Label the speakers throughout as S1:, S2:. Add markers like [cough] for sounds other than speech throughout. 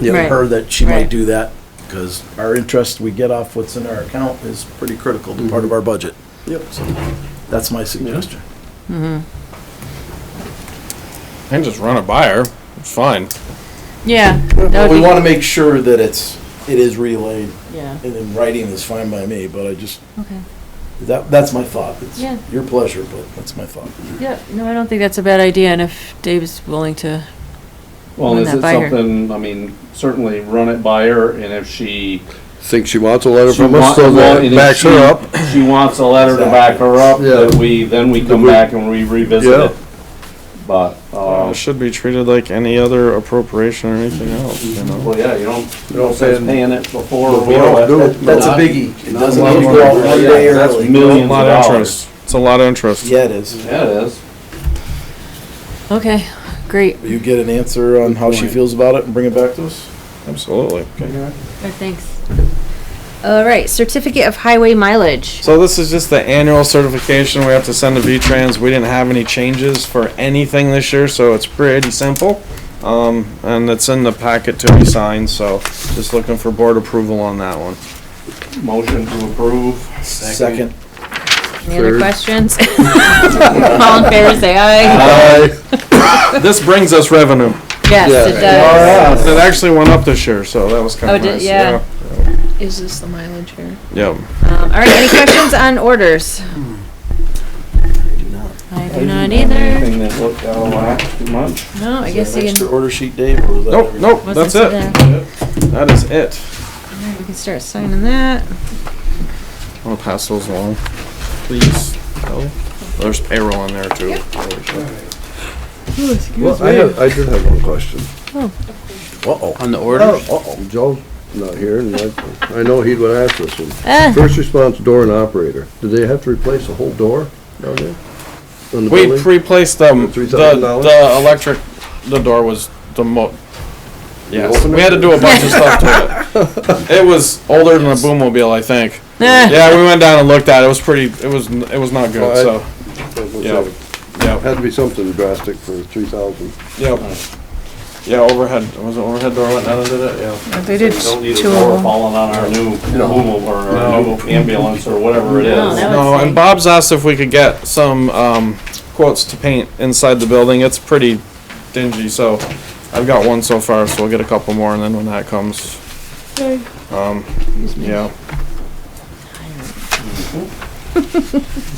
S1: you know,
S2: Right.
S1: her that she might
S2: Right.
S1: do that, because our interest we get off what's in our account is pretty critical to part of our budget.
S3: Yep.
S1: So That's my suggestion.
S4: And just run it by her. It's fine.
S2: Yeah. that
S1: But
S2: would
S1: we
S2: be-
S1: want to make sure that it's, it is relayed,
S2: Yeah.
S1: and in writing is fine by me, but I just,
S2: Okay.
S1: that, that's my thought. It's
S2: Yeah.
S1: Your pleasure, but that's my thought.
S2: Yeah, no, I don't think that's a bad idea, and if Dave's willing to,
S5: Well,
S2: Run
S5: is
S2: that
S5: it
S2: by her.
S5: something, I mean, certainly run it by her, and if she.
S3: Think she wants a letter
S5: she
S3: from
S5: wa-
S3: us, so
S5: well,
S3: that
S5: and if
S3: backs
S5: she-
S3: her up.
S5: She wants a letter to back her up,
S3: Yeah.
S5: that we, then we come
S3: we-
S5: back and we revisit
S3: Yeah.
S5: it. But, uh,
S4: It should be treated like any other appropriation or anything else, you know?
S5: well, yeah, you don't, you don't say paying it before or
S3: we don't
S5: below it.
S3: do it.
S1: That- That's a biggie. It doesn't
S3: Not
S1: need to
S3: one
S1: go out
S3: more.
S1: one
S5: Yeah,
S1: day
S5: that's
S1: early.
S5: mil-
S4: A
S5: Millions
S4: lot
S5: of
S4: of
S5: dollars.
S4: interest. It's a lot of interest.
S1: Yeah, it is.
S5: Yeah, it is.
S2: okay, great.
S1: Will you get an answer on how she feels about it and bring it back to us?
S4: Absolutely.
S2: Thanks. All right, certificate of highway mileage.
S4: So this is just the annual certification we have to send to V-Trans. We didn't have any changes for anything this year, so it's pretty simple. Um, and it's in the packet to be signed, so just looking for board approval on that
S5: [laughs]
S4: one.
S5: Motion to approve.
S1: Second.
S2: Any other
S3: Third.
S4: [laughs]
S2: questions? All in favor, say aye.
S3: Aye.
S4: This brings us revenue.
S5: Oh,
S2: Yes, it
S3: Yeah.
S2: does.
S4: And It actually went up this year, so that was
S2: Oh,
S4: kinda
S2: did-
S4: nice,
S2: yeah.
S4: yeah.
S6: Is this the mileage here?
S4: Yep.
S2: Um, All right, any questions on orders?
S4: Hmm.
S2: I do not either.
S5: Anything that looked out of whack too much.
S2: No, I guess
S1: Is there an
S2: you
S1: extra
S2: can.
S1: order sheet, Dave, or was that?
S4: Nope,
S1: everything?
S4: nope,
S2: What's
S4: that's
S2: this
S4: it.
S2: today?
S4: That is it.
S2: All right, We can start signing that.
S4: I'll pass those along, please. Kelly. There's payroll in there too.
S3: Well, I have, I did have one question. Oh,
S1: Uh-oh.
S7: On the orders?
S3: Uh-oh. Joe's not here, and I, I know he would ask this one.
S2: Ah,
S3: First response door and operator, do they have to replace a whole door down there? On the
S4: We
S3: building?
S4: pre-placed them, the,
S3: $3,000?
S4: the electric, the door was the mo, yes, we had to do a bunch of stuff to it. It was older than a boommobile, I think.
S2: ah,
S4: Yeah, we went down and looked at it, it was pretty, it was, it was not good,
S3: Well,
S4: so,
S3: Yeah.
S4: yeah,
S3: Had to be something drastic for three thousand.
S4: yeah. Yeah, overhead, was it overhead door went down and did it, yeah.
S6: They did
S5: We Don't need a
S6: two
S5: door
S6: of them.
S5: falling on our new mobile or our new ambulance or whatever it
S2: No,
S5: is.
S2: that would
S4: No,
S2: say-
S4: and Bob's asked if we could get some, um, quotes to paint inside the building, it's pretty dingy, so I've got one so far, so we'll get a couple more, and then when that comes, um, yeah.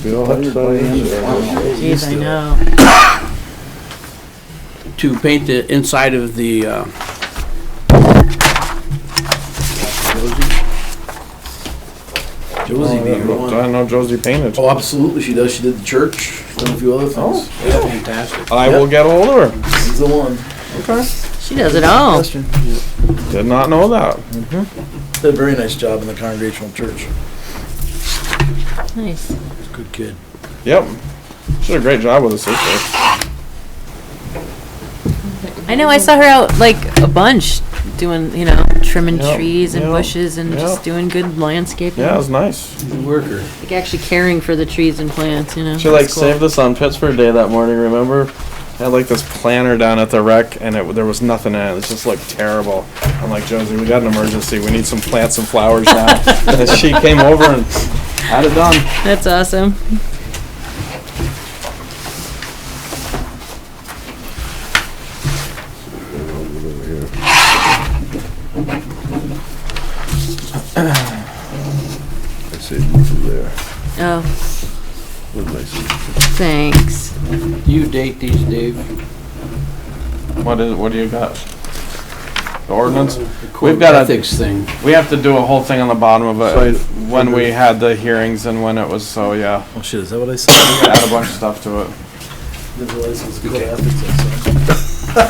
S3: We all have to sign.
S2: Geez, I know.
S7: To paint the inside of the, uh,
S1: Josie, be your
S4: Look, I
S1: one.
S4: know Josie painted.
S1: Oh, absolutely, she does. She did the church, done a few other things.
S7: fantastic.
S4: I will get hold of her.
S1: She's the one.
S2: She does it
S4: Oh.
S2: all.
S4: Did not know that.
S1: Did a very nice job in the congregational church.
S2: Nice.
S1: Good kid.
S4: Yep. She did a great job with the sister.
S2: I know, I saw her out like a bunch doing, you know, trimming
S4: Yep,
S2: trees and
S4: yep,
S2: bushes and just
S4: yep.
S2: doing good landscaping.
S4: Yeah, it was nice.
S1: Worker.
S2: Like actually caring for the trees and plants, you know.
S4: She like
S2: That's cool.
S4: saved us on Pittsburgh Day that morning. Remember? I had like this planter down at the wreck, and it there was nothing in it. It just looked terrible. I'm like Josie, we got an emergency. We need some plants and
S2: [laughs]
S4: flowers now. and she came over and had it done.
S2: That's awesome.
S3: I saved it from there.
S2: Oh,
S3: What did I say?
S2: thanks.
S7: You date these, Dave?
S4: What is? What do you got? The ordinance.
S7: We've
S4: got a-
S7: Ethics thing.
S4: We have to do a whole thing on the bottom of it
S3: Sign-
S4: when we had the hearings and when it was. So yeah,
S1: Oh shit, is that what I said?
S4: we gotta add a bunch of stuff to it.
S1: Didn't realize it was called ethics, I said.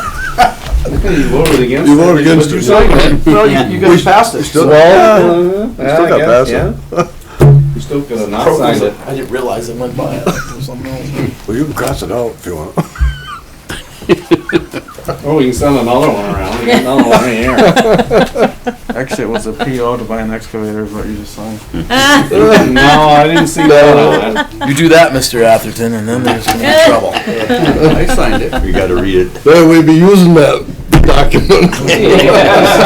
S5: You voted against
S3: You voted against it.
S5: No, you, you guys passed it.
S3: Still,
S4: Well,
S3: still got past it.
S5: You still could have not signed it.
S1: I didn't realize it went [laughs] by it or something else.
S3: Well, you can cross it out if you want.
S5: Oh, we can send another one around. We got another one in here.
S4: actually, it was a PO to buy an excavator. Is what you just signed.
S5: No, I didn't see that.
S1: You do that, Mr. Atherton, and then there's gonna be trouble.
S7: I signed it.
S3: You gotta read it. Then we'd be using that document.